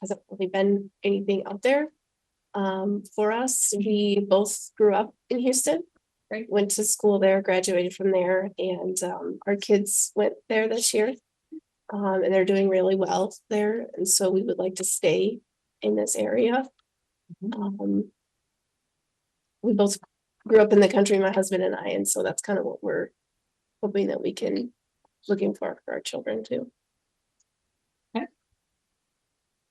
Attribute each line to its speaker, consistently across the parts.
Speaker 1: hasn't really been anything out there. Um, for us, we both grew up in Houston.
Speaker 2: Right.
Speaker 1: Went to school there, graduated from there, and um, our kids went there this year. Um, and they're doing really well there, and so we would like to stay in this area. Um. We both grew up in the country, my husband and I, and so that's kind of what we're hoping that we can, looking for for our children too.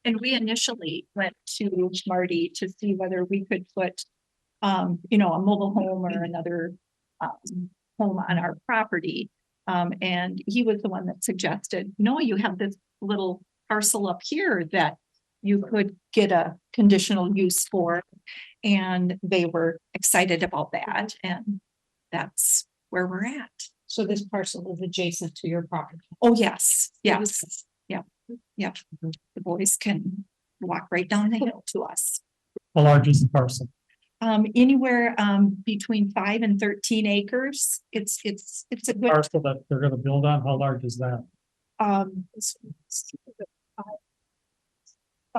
Speaker 2: And we initially went to Marty to see whether we could put, um, you know, a mobile home or another um, home on our property. Um, and he was the one that suggested, no, you have this little parcel up here that you could get a conditional use for. And they were excited about that and that's where we're at.
Speaker 3: So this parcel is adjacent to your property.
Speaker 2: Oh, yes, yes, yeah, yeah. The boys can walk right down the hill to us.
Speaker 4: How large is the parcel?
Speaker 2: Um, anywhere, um, between five and thirteen acres. It's, it's, it's a good,
Speaker 4: Parcel that they're gonna build on, how large is that?
Speaker 2: um, it's- it's five-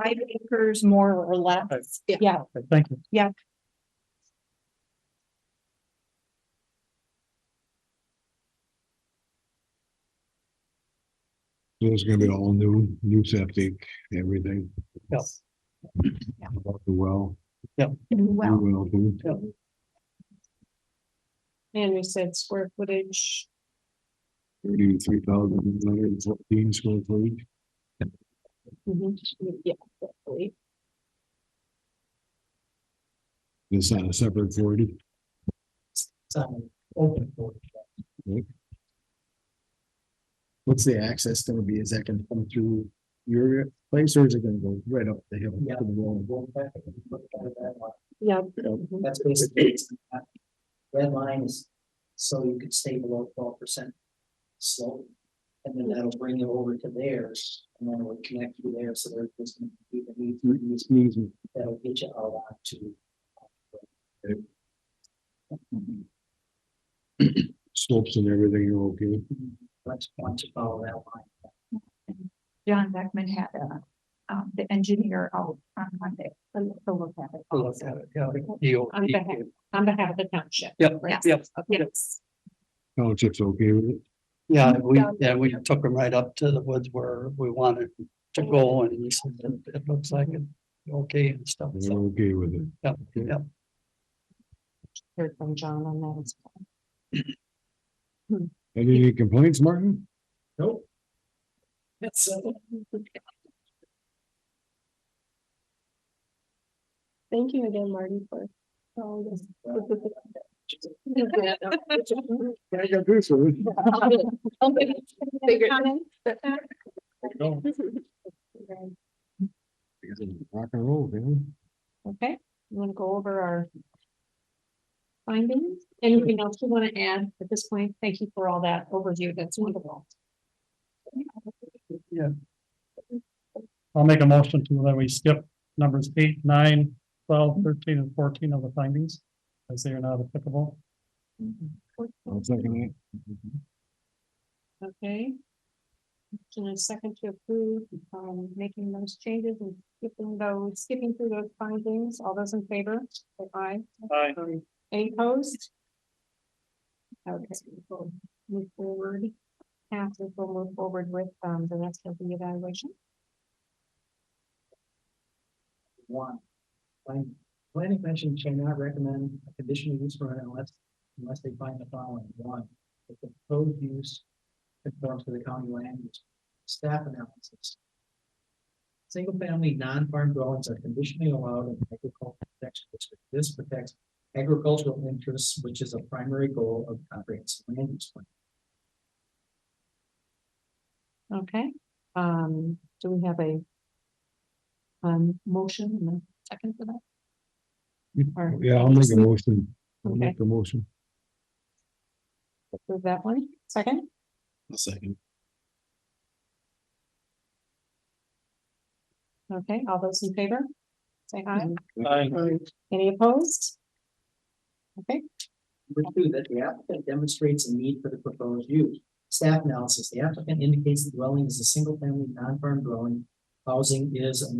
Speaker 2: five acres more or less.
Speaker 1: Yeah.
Speaker 2: Yeah,
Speaker 4: Okay, Thank you.
Speaker 5: So It's gonna be all new, new septic, everything.
Speaker 4: Yes.
Speaker 5: About the well.
Speaker 2: well,
Speaker 5: new well, too.
Speaker 3: And we said square footage.
Speaker 5: Thirty-three thousand nine hundred and fourteen square feet.
Speaker 1: Yeah, definitely.
Speaker 5: It's on a separate forty.
Speaker 4: It's on open for it.
Speaker 6: What's the access gonna be? Is that gonna come through your place or is it gonna go right up the hill? to
Speaker 4: Yeah.
Speaker 6: the wall?
Speaker 1: Yeah,
Speaker 7: That's basically. it's not- Red line is so you could stay below twelve percent slope. And then that'll bring you over to theirs and then it'll connect you there. So there's just gonna be the need for these,
Speaker 5: Easy.
Speaker 7: that'll get you out onto.
Speaker 5: Slopes and everything are okay.
Speaker 7: Let's want to follow that line.
Speaker 2: John Beckman had, uh, um, the engineer out on Monday, to to look at it.
Speaker 4: We'll look
Speaker 2: also.
Speaker 4: at it, yeah, EO.
Speaker 3: On behalf, on behalf of the township.
Speaker 4: Yep,
Speaker 2: Yes.
Speaker 4: yep,
Speaker 2: Yes,
Speaker 5: Township's okay with it.
Speaker 4: yeah, we,
Speaker 1: Yeah.
Speaker 4: yeah, we took them right up to the woods where we wanted to go and he said, "It- it looks like it, okay and stuff,
Speaker 5: They're
Speaker 4: so,
Speaker 5: okay with it.
Speaker 4: yeah, yeah.
Speaker 3: Heard from John on that as well.
Speaker 5: Any complaints, Martin?
Speaker 7: Nope.
Speaker 1: thank you again, Marty, for for all this. Figure-
Speaker 5: Rock and roll, man.
Speaker 3: Okay, you wanna go over our findings? Anything else you wanna add at this point? Thank you for all that overview. That's wonderful.
Speaker 4: I'll make a motion to that we skip numbers eight, nine, twelve, thirteen and fourteen of the findings. As they are not applicable.
Speaker 5: I'll second
Speaker 3: Okay. And a second to approve, um, making those changes and skipping those, skipping through those findings. All those in favor? Say aye.
Speaker 4: Aye.
Speaker 3: Any opposed? Okay, we'll move forward. After we'll move forward with um the rest of the evaluation.
Speaker 7: One. Plan- Planning commission cannot recommend a conditional use permit unless, unless they find the following, one. If the proposed use conforms to the county land use, staff analysis. Single family non-farm dwellings are conditionally allowed in agricultural protection district. This protects agricultural interests, which is a primary goal of comprehensive land use plan.
Speaker 3: Okay, um, do we have a um motion and a second for that?
Speaker 5: it.
Speaker 3: Or-
Speaker 5: Mm, Yeah, I'll make a motion. I'll
Speaker 3: Okay.
Speaker 5: make a motion.
Speaker 3: Approve that one. Second.
Speaker 6: A second.
Speaker 3: Okay, all those in favor? Say aye.
Speaker 5: Mm-hmm.
Speaker 4: Aye.
Speaker 3: Any opposed? Okay,
Speaker 7: Number two, that the applicant demonstrates a need for the proposed use. Staff analysis, the applicant indicates the dwelling is a single-family non-farm dwelling. Housing is a